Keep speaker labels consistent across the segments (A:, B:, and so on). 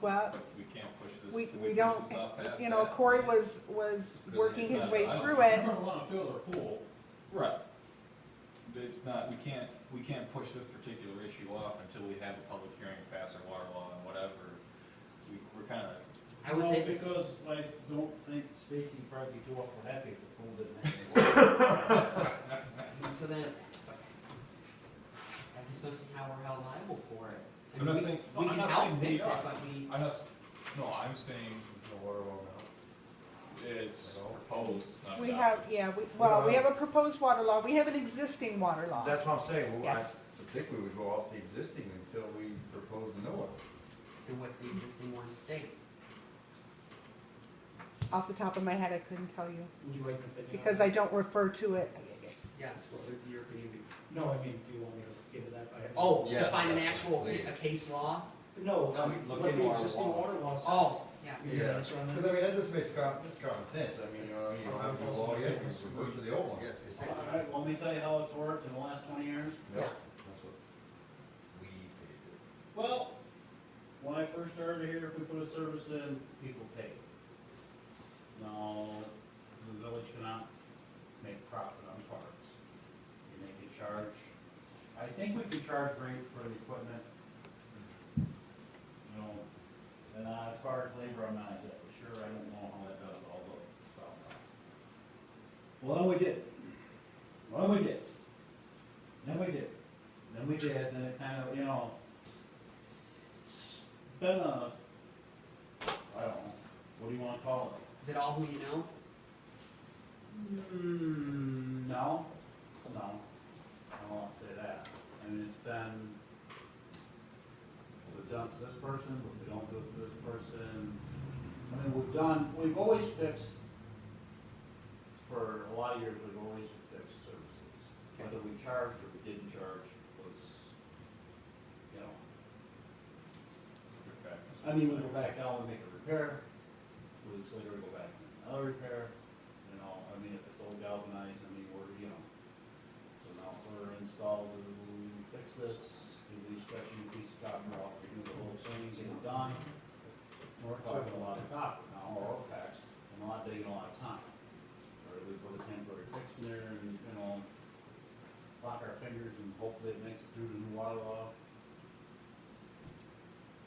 A: well,
B: We can't push this,
A: we,
B: can we
A: we
B: push
A: don't,
B: this off past
A: you know,
B: that?
A: Corey was, was
B: Because
A: working
B: it's
A: his
B: not-
A: way
B: I don't-
A: through it.
C: You don't wanna fill their pool,
B: Right. It's not, we can't, we can't push this particular issue off until we have a public hearing, pass our water law and whatever. We, we're kinda,
D: I would
E: No,
D: say,
E: Because I don't think Stacy probably too awful happy if the pool didn't have any water.
D: uh, so then, I just don't see how we're held liable for it. I
B: I'm
D: mean,
B: not
D: we-
B: saying,
D: We
B: I'm
D: can
B: not
D: help
B: saying we
D: fix it,
B: are.
D: but we,
B: I'm not, s- no, I'm saying. The water law now? It's proposed, it's not.
A: We
B: adopted.
A: have, yeah, we, well, we
F: Well-
A: have a proposed water law, we have an existing water law.
F: That's what I'm saying, well, I
A: Yes.
F: think we would go off the existing until we propose a new one.
B: Uh-huh.
D: and what's the existing one state?
A: Off the top of my head, I couldn't tell you,
D: Would you like to pick it up?
A: because I don't refer to it.
D: Yes, well, the European, Union.
G: No, I mean, do you want me to give it that by?
D: oh,
F: Yeah,
D: to find an actual,
F: please.
D: a case law?
G: No,
F: No, we look
G: what
F: into
G: the
F: our
G: existing
F: law.
G: water law says.
D: Oh, yeah.
G: You can answer on
F: Because I
G: that.
F: mean, that just makes common, that's common sense, I mean, you know, you don't
B: Uh-huh.
F: have to law yet, you just revert to the old one. Yes,
E: All right, well, let me tell you how it's worked in the last twenty years.
F: Yeah,
D: Yeah.
F: that's what we paid
E: Well, when I first started here, if we put a service in, people paid. No, the village cannot make profit on parts. And they could charge, I think we could charge rate for the equipment. You know, and uh, as far as labor, I'm not exactly sure, I don't know how that does, although it's all right. Well, then we did. Well, then we did. Then we did. Then we did, then it kind of, you know, it's been a, I don't know, what do you wanna call it?
D: Is it all who you know?
E: Mm, no, no, I won't say that. I mean, it's been, we've done it to this person, but we don't do it to this person. I mean, we've done, we've always fixed, for a lot of years, we've always fixed services. Whether we charged or we didn't charge was, you know,
B: Good fact.
E: I mean, we go back down, we make a repair, two weeks later we go back, and another repair, you know, I mean, if it's all galvanized, I mean, we're, you know. So now if we're installed, we fix this, do we stretch a new piece of copper off, we do the whole thing, get it done. And We're talking a lot of copper now, or oil packs, and a lot, taking a lot of time. Or we put a temporary fix in there and, you know, lock our fingers and hopefully it makes it through the new water law.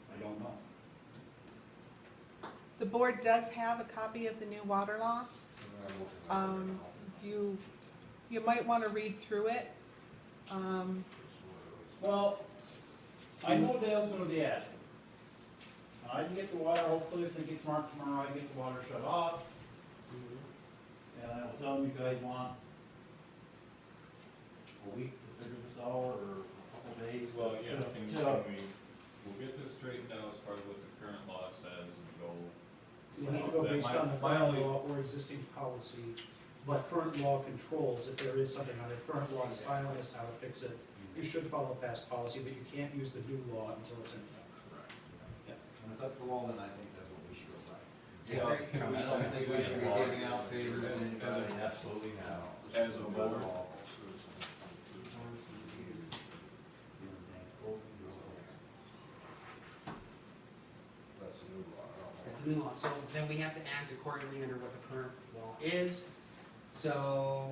E: I don't know.
A: The board does have a copy of the new water law.
F: it.
A: Um, you, you might wanna read through it. Um,
E: Well, I know Dale's gonna be asking. I can get the water, hopefully if it gets marked tomorrow, I can get the water shut off. And I will tell them you guys want a week to figure this out, or a couple days.
B: Well, yeah, I think,
E: So,
B: we, we'll get this straightened out as far as what the current law says and go.
G: You have to go based on the
B: My- my
G: current
B: only-
G: law or existing policy, but current law controls, if there is something on it, current law is silent as to how to fix it. You should follow past policy, but you can't use the new law until it's in effect.
F: And if that's the law, then I think that's what we should go by.
B: Yeah, I think
F: I don't think we should be giving out favors and.
B: As a-
F: Absolutely not.
B: as a board.
F: That's a new law, I
D: That's a new law, so then we have to act accordingly under what the current law is. So,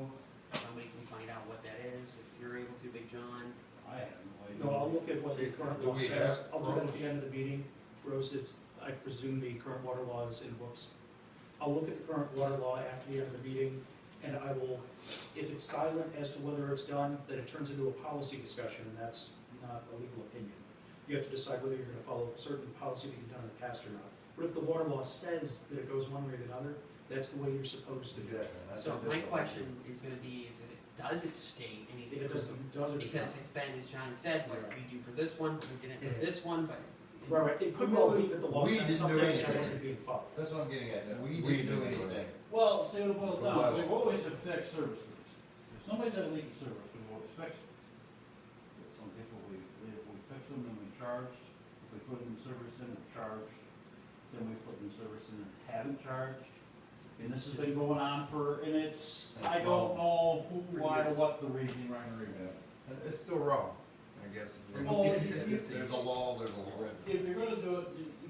D: somebody can find out what that is, if you're able to, Big John.
E: I have no idea.
G: No, I'll look at what the current
F: Do
G: law
F: we
G: says,
F: have
G: I'll do that at
F: rules?
G: the end of the meeting. Rose, it's, I presume the current water law is in books. I'll look at the current water law after the end of the meeting, and I will, if it's silent as to whether it's done, then it turns into a policy discussion, and that's not a legal opinion. You have to decide whether you're gonna follow certain policy that you've done in the past or not. But if the water law says that it goes one way or the other, that's the way you're supposed to
F: don't
G: do
F: know.
G: it.
F: Exactly.
D: So my question is gonna be, is if it doesn't state
G: If
D: anything.
G: it doesn't, does or does not.
D: Because it's been, as John has said, what we do for this one, what we didn't
G: Yeah.
D: for this one, but.
G: Right, right, it could well be that the law
F: We
G: says
F: didn't do
G: something and it
F: anything.
G: wasn't being followed.
F: That's what I'm getting at, we
B: We
F: didn't do
B: didn't do
F: anything.
E: Well, see what it boils down, to. we've always have fixed services. If somebody's had a leaky service, we've always fixed it. But some people, we, if we fix them and we charged, if we put in service in and charged, then we put in service in and haven't charged. And this has been going on for, and it's, I don't know who, why, what the reason, right or wrong.
F: And It's still wrong, I guess.
D: There
E: must be
F: Well,
D: consistency.
F: There's a Oh, law, there's a law.
E: If you're gonna do it, you-